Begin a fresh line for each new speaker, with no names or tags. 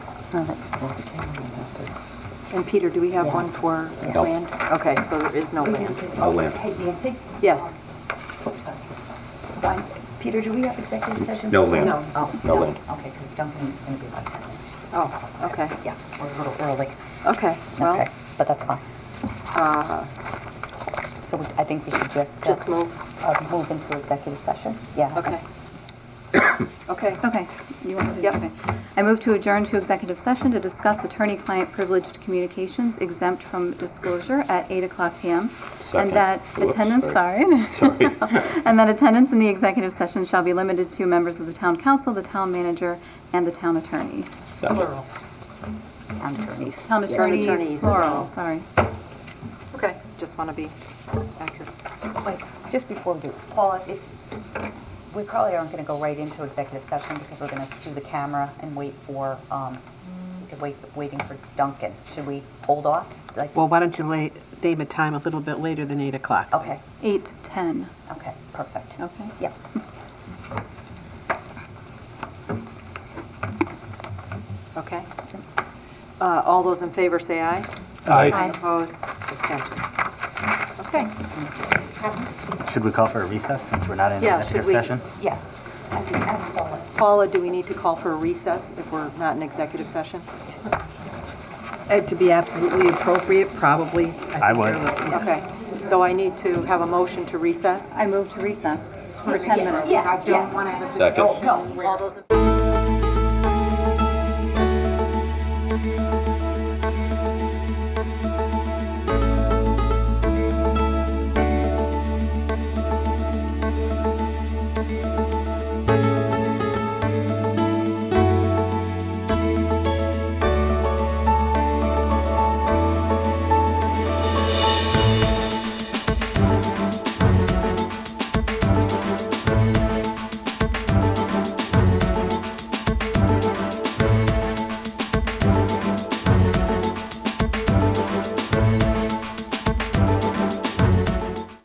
All right. And Peter, do we have one for
No.
land? Okay, so there is no land.
I'll land.
Hey, Nancy?
Yes.
Fine. Peter, do we have executive session?
No land.
No. Oh,
No land.
Okay, because Duncan's going to be about 10 minutes.
Oh, okay.
Yeah, we're a little early.
Okay, well, uh,
Okay, but that's fine. So we- I think we should just. uh,
just move.
uh, Move into executive session? Yeah.
Okay. Okay.
Okay, you want me to?
Yep.
okay. I move to adjourn to executive session to discuss attorney-client privileged communications exempt from disclosure at 8 o'clock PM.
Second.
And that
Whoops,
attendance, sorry.
Sorry.
And that attendance in the executive session shall be limited to members of the town council, the town manager, and the town attorney.
Second.
Town attorneys.
Town attorneys,
attorneys.
plural, sorry.
Okay, just want to be accurate.
Wait, just before we do, Paula, if, we probably aren't going to go right into executive session because we're going to do the camera and wait for, um, wait, waiting for Duncan. Should we hold off? Like,
Well, why don't you lay, name a time a little bit later than 8 o'clock?
okay,
8:10,
okay, perfect.
okay?
Yeah.
Okay. Uh, All those in favor say aye.
Aye.
Opposed, abstentions. Okay,
Should we call for a recess since we're not in
Yeah,
executive
should we?
session?
Yeah. As, as Paula.
Paula, do we need to call for a recess if we're not in executive session?
And to be absolutely appropriate, probably.
I
think
would.
you're looking- yeah.
Okay, so I need to have a motion to recess?
I move to recess for 10 minutes.
Yeah.
Second.
All those in